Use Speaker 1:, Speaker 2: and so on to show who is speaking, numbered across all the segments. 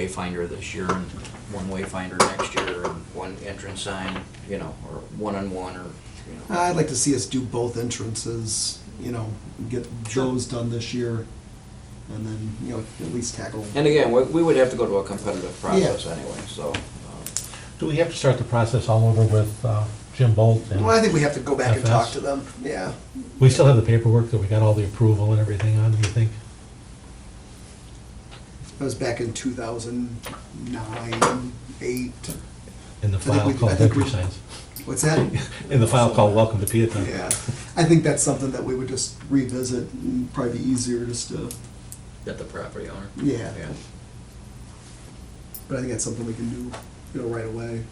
Speaker 1: wayfinder this year and one wayfinder next year and one entrance sign, you know, or one on one or, you know.
Speaker 2: I'd like to see us do both entrances, you know, get
Speaker 1: Sure.
Speaker 2: those done this year, and then, you know, at least tackle.
Speaker 1: And again, we, we would have to go to a competitive process
Speaker 2: Yeah.
Speaker 1: anyway, so. um,
Speaker 3: Do we have to start the process all over with uh, Jim Bolt? and-
Speaker 2: Well, I think we have to go back and talk
Speaker 3: FS.
Speaker 2: to them, yeah.
Speaker 3: We still have the paperwork that we got all the approval and everything on, do you think?
Speaker 2: That was back in two thousand nine, eight,
Speaker 3: In the
Speaker 2: think
Speaker 3: file
Speaker 2: we- I
Speaker 3: called
Speaker 2: think we-
Speaker 3: DecuSigns?
Speaker 2: what's that?
Speaker 3: In the file called Welcome to Peatown?
Speaker 2: Yeah, I think that's something that we would just revisit, and probably be easier just to,
Speaker 1: At the property owner.
Speaker 2: yeah. But I think that's something we can do, you know, right away.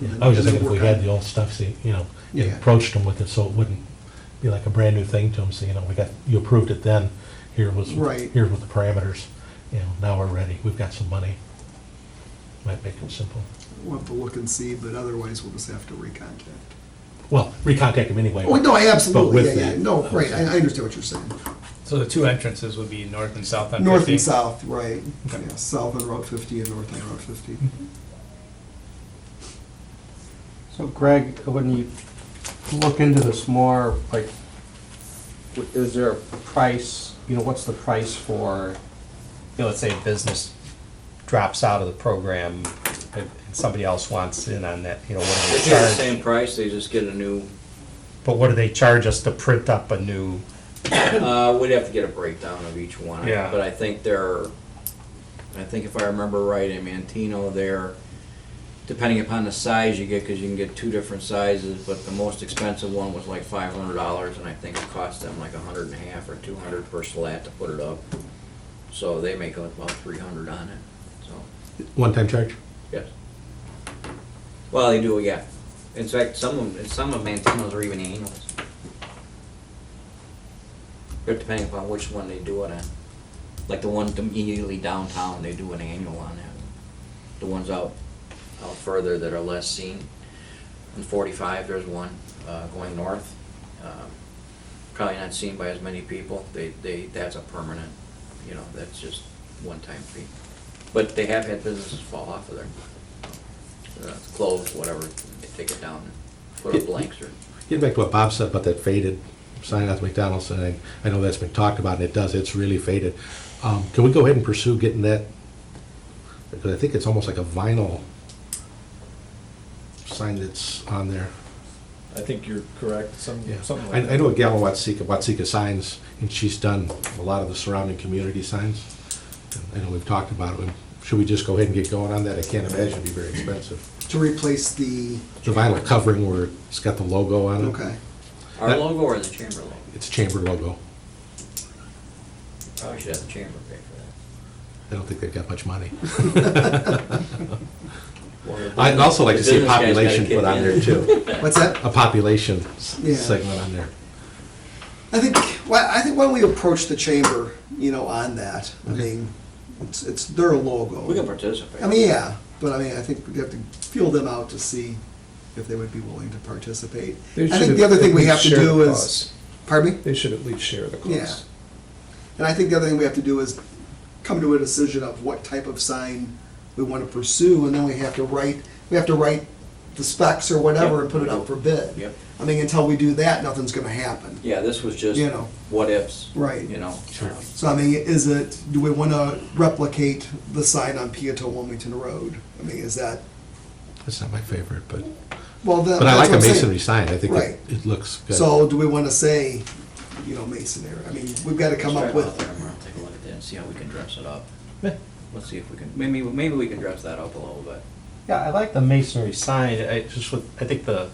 Speaker 3: Yeah, I was just
Speaker 2: And
Speaker 3: thinking if we
Speaker 2: then work
Speaker 3: had
Speaker 2: on-
Speaker 3: the old stuff, see, you know, you
Speaker 2: Yeah.
Speaker 3: approached them with it, so it wouldn't be like a brand-new thing to them, so, you know, we got, you approved it then, here was,
Speaker 2: Right.
Speaker 3: here was the parameters, you know, now we're ready, we've got some money. Might make it simple.
Speaker 2: We'll have to look and see, but otherwise we'll just have to recontact.
Speaker 3: Well, recontact them anyway.
Speaker 2: Oh, no, I absolutely,
Speaker 3: with
Speaker 2: yeah, yeah,
Speaker 3: the-
Speaker 2: no, right, I, I understand what you're saying.
Speaker 4: So the two entrances would be north and south on 50?
Speaker 2: North and south, right,
Speaker 4: Okay.
Speaker 2: yeah, south on Route fifty and north on Route fifty.
Speaker 5: So Greg, when you look into this more, like, w- is there a price, you know, what's the price for, you know, let's say a business drops out of the program and and somebody else wants in on that, you know, what
Speaker 1: They
Speaker 5: do they
Speaker 1: pay the
Speaker 5: charge?
Speaker 1: same price, they just get a new,
Speaker 5: But what do they charge us to print up a new,
Speaker 1: uh, we'd have to get a breakdown of each one.
Speaker 5: Yeah.
Speaker 1: But I think there, are- I think if I remember right, in Mantino there, depending upon the size you get, because you can get two different sizes, but the most expensive one was like five hundred dollars, and I think it cost them like a hundred and a half or two hundred per slat to put it up. So they make like about three hundred on it, so.
Speaker 3: One-time charge?
Speaker 1: Yes. Well, they do, yeah. In fact, some of, some of Mantino's are even annuals. It depending upon which one they do it on. Like the one immediately downtown, they do an annual on that. The ones out, out further that are less seen. In forty-five, there's one, uh, going north. Um, Probably not seen by as many people. They, they, that's a permanent, you know, that's just one-time fee. But they have had businesses fall off of there. Uh, Close, whatever, they take it down, put up blanks or,
Speaker 6: Getting back to what Bob said about that faded sign at McDonald's, and I, I know that's been talked about, and it does, it's really faded. Um, can we go ahead and pursue getting that, because I think it's almost like a vinyl sign that's on there.
Speaker 7: I think you're correct, some, something like that.
Speaker 6: I, I know a gal in Watsika, Watsika Signs, and she's done a lot of the surrounding community signs. And I know we've talked about it, should we just go ahead and get going on that? I can't imagine it'd be very expensive.
Speaker 2: To replace the,
Speaker 6: The vinyl covering where it's got the logo on it.
Speaker 2: okay,
Speaker 1: our
Speaker 6: That-
Speaker 1: logo or the chamber logo?
Speaker 6: It's chamber logo.
Speaker 1: Probably should have the chamber pay for
Speaker 6: I don't think they've got much money.
Speaker 1: that.
Speaker 6: I'd also like to see
Speaker 1: The business
Speaker 6: a
Speaker 1: guy's gotta
Speaker 6: population
Speaker 1: kick
Speaker 6: put on
Speaker 1: in.
Speaker 6: there too,
Speaker 2: what's that?
Speaker 6: a population s-
Speaker 2: Yeah.
Speaker 6: segment on there.
Speaker 2: I think, well, I think when we approach the chamber, you know, on that, I mean, it's, it's their logo.
Speaker 1: We can participate.
Speaker 2: I mean, yeah, but I mean, I think we have to feel them out to see if they would be willing to participate.
Speaker 7: They
Speaker 2: I
Speaker 7: should
Speaker 2: think the other
Speaker 7: at
Speaker 2: thing we
Speaker 7: least
Speaker 2: have to
Speaker 7: share
Speaker 2: do
Speaker 7: the
Speaker 2: is,
Speaker 7: cost.
Speaker 2: pardon me?
Speaker 7: They should at least share the
Speaker 2: Yeah.
Speaker 7: cost.
Speaker 2: And I think the other thing we have to do is come to a decision of what type of sign we want to pursue, and then we have to write, we have to write the specs or whatever and put it out for bid.
Speaker 1: Yep.
Speaker 2: I mean, until we do that, nothing's gonna happen.
Speaker 1: Yeah, this was just
Speaker 2: You know.
Speaker 1: what ifs.
Speaker 2: Right.
Speaker 1: You know. um,
Speaker 2: So I mean, is it, do we want to replicate the sign on Piattone Wilmington Road? I mean, is that,
Speaker 6: That's not my favorite, but,
Speaker 2: well, that-
Speaker 6: but I
Speaker 2: that's what
Speaker 6: like a
Speaker 2: I'm saying.
Speaker 6: masonry sign, I think
Speaker 2: Right.
Speaker 6: it, it looks good.
Speaker 2: So do we want to say, you know, masonry? I mean, we've got to come
Speaker 1: let's
Speaker 2: up
Speaker 1: drive out there
Speaker 2: with,
Speaker 1: tomorrow, Take a look at that and see how we can dress it up.
Speaker 3: Yeah.
Speaker 1: Let's see if we can, maybe, maybe we can dress that up a little bit.
Speaker 5: yeah, I like the masonry sign, I just, would- I think the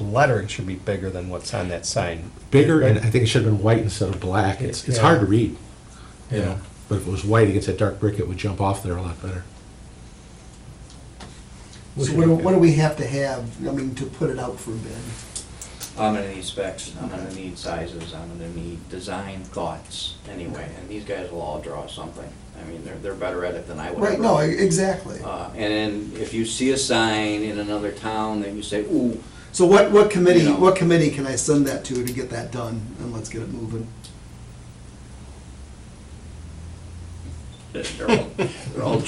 Speaker 5: lettering should be bigger than what's on that sign.
Speaker 6: Bigger, and I think it should have been white instead of black, it's, it's
Speaker 5: Yeah.
Speaker 6: hard to read, you
Speaker 5: Yeah.
Speaker 6: know, but if it was white against that dark brick, it would jump off there a lot better.
Speaker 2: so what do, what do we have to have, I mean, to put it out for bid?
Speaker 1: I'm gonna need specs, I'm gonna need sizes, I'm gonna need design thoughts anyway, and these guys will all draw something. I mean, they're, they're better at it than I would.
Speaker 2: Right,
Speaker 1: ever
Speaker 2: no, e-,
Speaker 1: be.
Speaker 2: exactly.
Speaker 1: Uh, And then if you see a sign in another town, then you say, ooh,
Speaker 2: So what, what committee,
Speaker 1: You know.
Speaker 2: what committee can I send that to to get that done and let's get it moving?
Speaker 1: They're all- they're all